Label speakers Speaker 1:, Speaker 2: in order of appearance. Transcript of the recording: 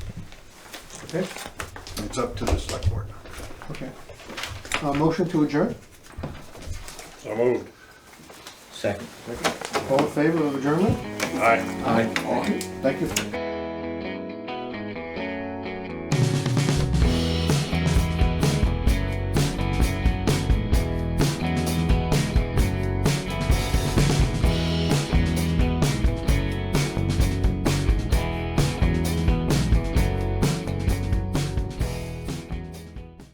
Speaker 1: Okay,
Speaker 2: And It's up to the select board.
Speaker 1: okay. Uh, motion to adjourn?
Speaker 3: So moved.
Speaker 4: Second.
Speaker 1: All in favor of adjournment?
Speaker 3: Aye.
Speaker 1: Aye. Thank you.